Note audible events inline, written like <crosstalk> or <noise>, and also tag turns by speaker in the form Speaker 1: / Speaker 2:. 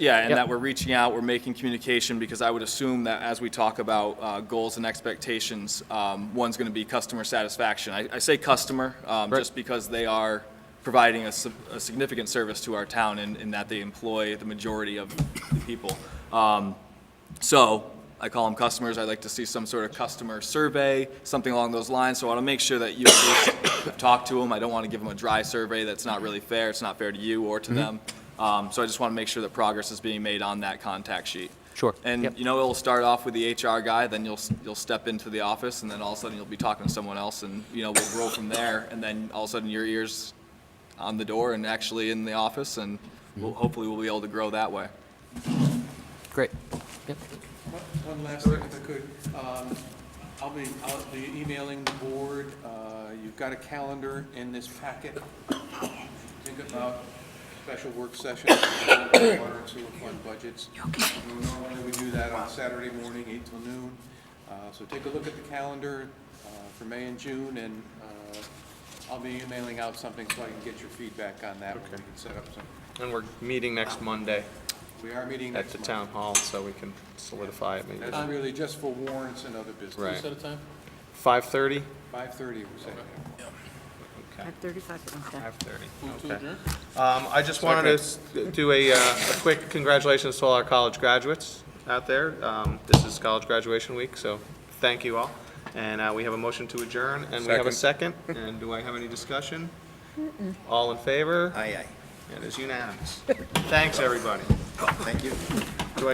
Speaker 1: Yeah, and
Speaker 2: Yep.
Speaker 1: that we're reaching out, we're making communication, because I would assume that as we talk about uh, goals and expectations, um, one's going to be customer satisfaction. I I say customer, um,
Speaker 2: Right.
Speaker 1: just because they are providing a sig- a significant service to our town in in that they employ the majority of the people. Um, So I call them customers, I'd like to see some sort of customer survey, something along those lines, so I want to make sure that you at least <coughs> have talked to them. I don't want to give them a dry survey that's not really fair, it's not fair to you or
Speaker 2: Mm-hmm.
Speaker 1: to them. Um, So I just want to make sure that progress is being made on that contact sheet.
Speaker 2: Sure.
Speaker 1: And,
Speaker 2: Yep.
Speaker 1: you know, it'll start off with the HR guy, then you'll, s- you'll step into the office, and then all of a sudden you'll be talking to someone else, and, you know, we'll grow from there, and then all of a sudden your ear's on the door and actually in the office, and we'll,
Speaker 2: Mm-hmm.
Speaker 1: hopefully we'll be able to grow that way.
Speaker 2: Great. Yep.
Speaker 3: One last thing, if I could. Um, I'll be, I'll be emailing the board. Uh, You've got a calendar in this packet. Think about special work sessions, water and sewer fund budgets. Normally, we do that on Saturday morning, eight till noon. Uh, So take a look at the calendar uh, for May and June, and uh, I'll be emailing out something so I can get your feedback on that. when We
Speaker 4: Okay.
Speaker 3: can set up some,
Speaker 4: And we're meeting next Monday
Speaker 3: we are meeting
Speaker 4: at
Speaker 3: next
Speaker 4: the
Speaker 3: month.
Speaker 4: town hall, so we can solidify it maybe.
Speaker 3: That's really just for warrants and other business.
Speaker 4: Right.
Speaker 5: Set a time?
Speaker 4: Five-thirty?
Speaker 3: Five-thirty, we're saying.
Speaker 4: Okay,
Speaker 6: 5:35, okay.
Speaker 4: five-thirty.
Speaker 5: Move to adjourn?
Speaker 4: Um, I just wanted to s- do a, uh, a quick congratulations to all our college graduates out there. Um, this is college graduation week, so thank you all. And, uh, we have a motion to adjourn, and we have a second, and do I have any discussion? All in favor? Aye, aye. It is unanimous. Thanks, everybody.